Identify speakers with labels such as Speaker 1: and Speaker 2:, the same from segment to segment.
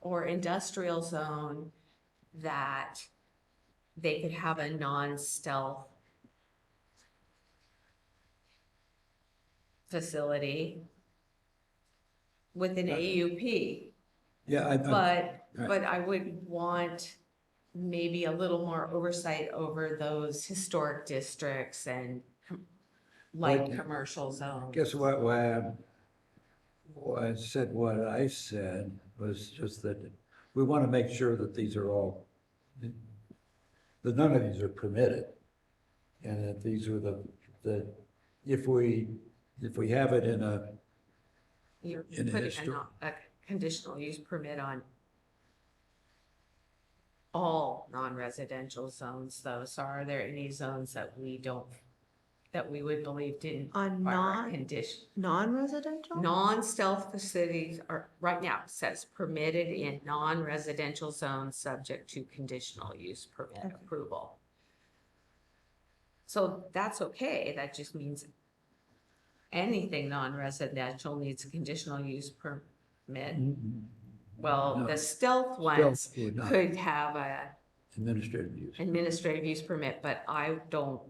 Speaker 1: or industrial zone that they could have a non-stealth facility with an AUP.
Speaker 2: Yeah, I, I,
Speaker 1: But,
Speaker 2: Right.
Speaker 1: but I would want maybe a little more oversight over those historic districts and com- light
Speaker 2: Right.
Speaker 1: commercial zones.
Speaker 2: guess what, why I, why I said what I said was just that we want to make sure that these are all, that none of these are permitted. And that these are the, the, if we, if we have it in a,
Speaker 1: You're
Speaker 2: in a
Speaker 1: putting a,
Speaker 2: histor-
Speaker 1: non- a conditional use permit on all non-residential zones though, so are there any zones that we don't, that we would believe didn't
Speaker 3: On
Speaker 1: require a
Speaker 3: non,
Speaker 1: condition?
Speaker 3: non-residential?
Speaker 1: Non-stealth facilities are, right now, it says permitted in non-residential zones subject to conditional use permit
Speaker 3: Okay.
Speaker 1: approval. So that's okay, that just means anything non-residential needs a conditional use permit. Well,
Speaker 2: No.
Speaker 1: the stealth ones
Speaker 2: Stealth would not.
Speaker 1: could have a
Speaker 2: administrative use.
Speaker 1: administrative use permit, but I don't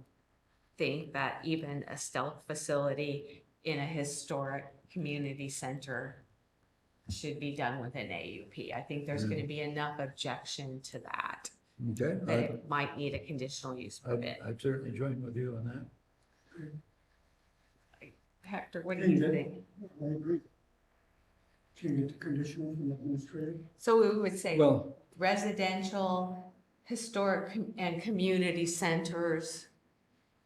Speaker 1: think that even a stealth facility in a historic community center should be done with an AUP. I think there's
Speaker 4: Mm-hmm.
Speaker 1: gonna be enough objection to that,
Speaker 2: Okay,
Speaker 1: that
Speaker 2: I,
Speaker 1: it might need a conditional use permit.
Speaker 2: I I'd certainly join with you on that.
Speaker 1: Hector, what do you
Speaker 4: Yeah.
Speaker 1: think?
Speaker 4: I agree. Can you get the conditional from administrative?
Speaker 1: So we would say
Speaker 2: Well,
Speaker 1: residential, historic com- and community centers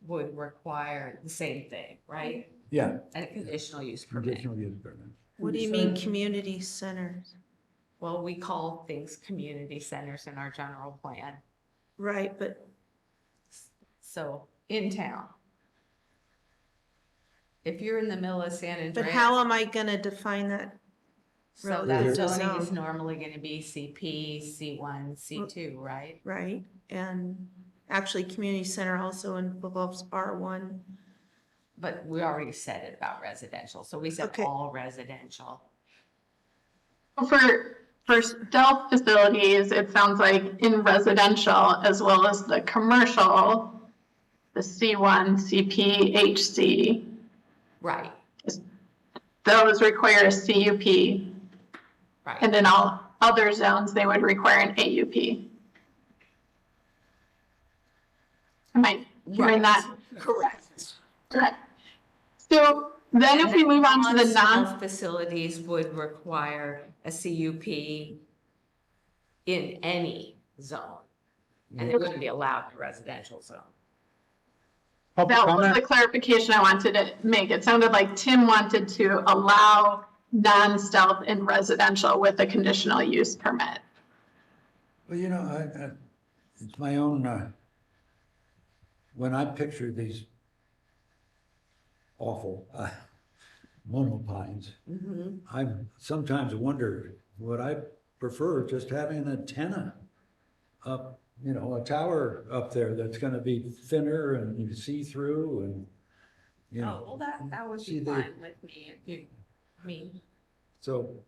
Speaker 1: would require the same thing, right?
Speaker 2: yeah,
Speaker 1: A conditional use permit.
Speaker 2: conditional use permit.
Speaker 3: What do you mean, community centers?
Speaker 1: Well, we call things community centers in our general plan,
Speaker 3: Right, but
Speaker 1: so in town. If you're in the middle of San Andreas.
Speaker 3: But how am I gonna define that?
Speaker 1: So
Speaker 2: Yeah.
Speaker 1: that zoning is
Speaker 3: zone?
Speaker 1: normally gonna be CP, C1, C2, right?
Speaker 3: Right, and actually, community center also involves R one.
Speaker 1: But we already said it about residential, so we said
Speaker 3: Okay.
Speaker 1: all residential.
Speaker 5: Well, For, for stealth facilities, it sounds like in residential as well as the commercial, the C1, CP, HC,
Speaker 1: Right,
Speaker 5: those require a CUP.
Speaker 1: right.
Speaker 5: And in all other zones, they would require an AUP. Am I
Speaker 1: Right.
Speaker 5: hearing that
Speaker 3: Correct.
Speaker 5: correct? So then if we move on to the non.
Speaker 1: Non-health Facilities would require a CUP in any zone. And it wouldn't be allowed in a residential zone.
Speaker 6: Public
Speaker 5: That was the
Speaker 6: comment?
Speaker 5: clarification I wanted to make. It sounded like Tim wanted to allow non-stealth in residential with a conditional use permit.
Speaker 2: Well, you know, I, I, it's my own, uh, when I picture these awful, uh, monopines,
Speaker 1: Mm-hmm.
Speaker 2: I sometimes wonder, would I prefer just having an antenna up, you know, a tower up there that's gonna be thinner and you see through and, you
Speaker 1: Oh,
Speaker 2: know,
Speaker 1: well, that, that would
Speaker 2: see
Speaker 1: be
Speaker 2: the-
Speaker 1: fine with me, if you, I mean,
Speaker 2: so,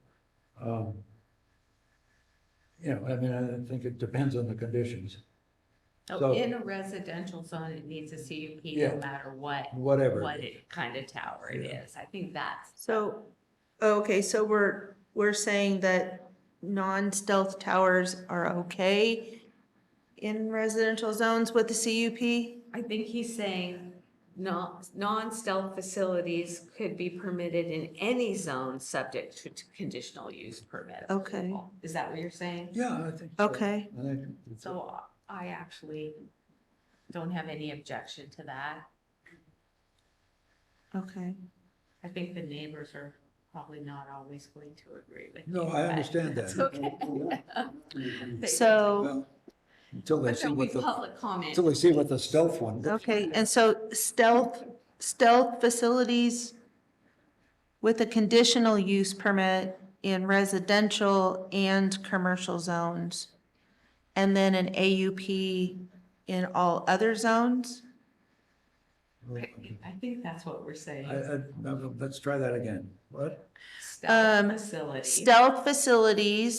Speaker 2: um, you know, I mean, I think it depends on the conditions, So-
Speaker 1: oh, in a residential zone, it needs a CUP
Speaker 2: Yeah.
Speaker 1: no matter what,
Speaker 2: whatever.
Speaker 1: what it, kind of tower it
Speaker 2: Yeah.
Speaker 1: is. I think that's,
Speaker 3: So, okay, so we're, we're saying that non-stealth towers are okay in residential zones with the CUP?
Speaker 1: I think he's saying non, non-stealth facilities could be permitted in any zone subject to to conditional use permit.
Speaker 3: Okay.
Speaker 1: approval. Is that what you're saying?
Speaker 2: Yeah, I think. so.
Speaker 3: Okay,
Speaker 2: I think it's-
Speaker 1: So I actually don't have any objection to that.
Speaker 3: okay.
Speaker 1: I think the neighbors are probably not always going to agree with you.
Speaker 2: No, I
Speaker 1: but
Speaker 2: understand
Speaker 1: that's
Speaker 2: that.
Speaker 1: okay. They-
Speaker 3: So,
Speaker 2: Well, Until they
Speaker 1: But
Speaker 2: see
Speaker 1: there'll be
Speaker 2: what the,
Speaker 1: public comment.
Speaker 2: until they see what the stealth one.
Speaker 3: okay, and so stealth, stealth facilities with a conditional use permit in residential and commercial zones. And then an AUP in all other zones?
Speaker 1: I I think that's what we're saying.
Speaker 2: I, I, no, let's try that again. What?
Speaker 1: Stealth
Speaker 3: um,
Speaker 1: Facility.
Speaker 3: Stealth facilities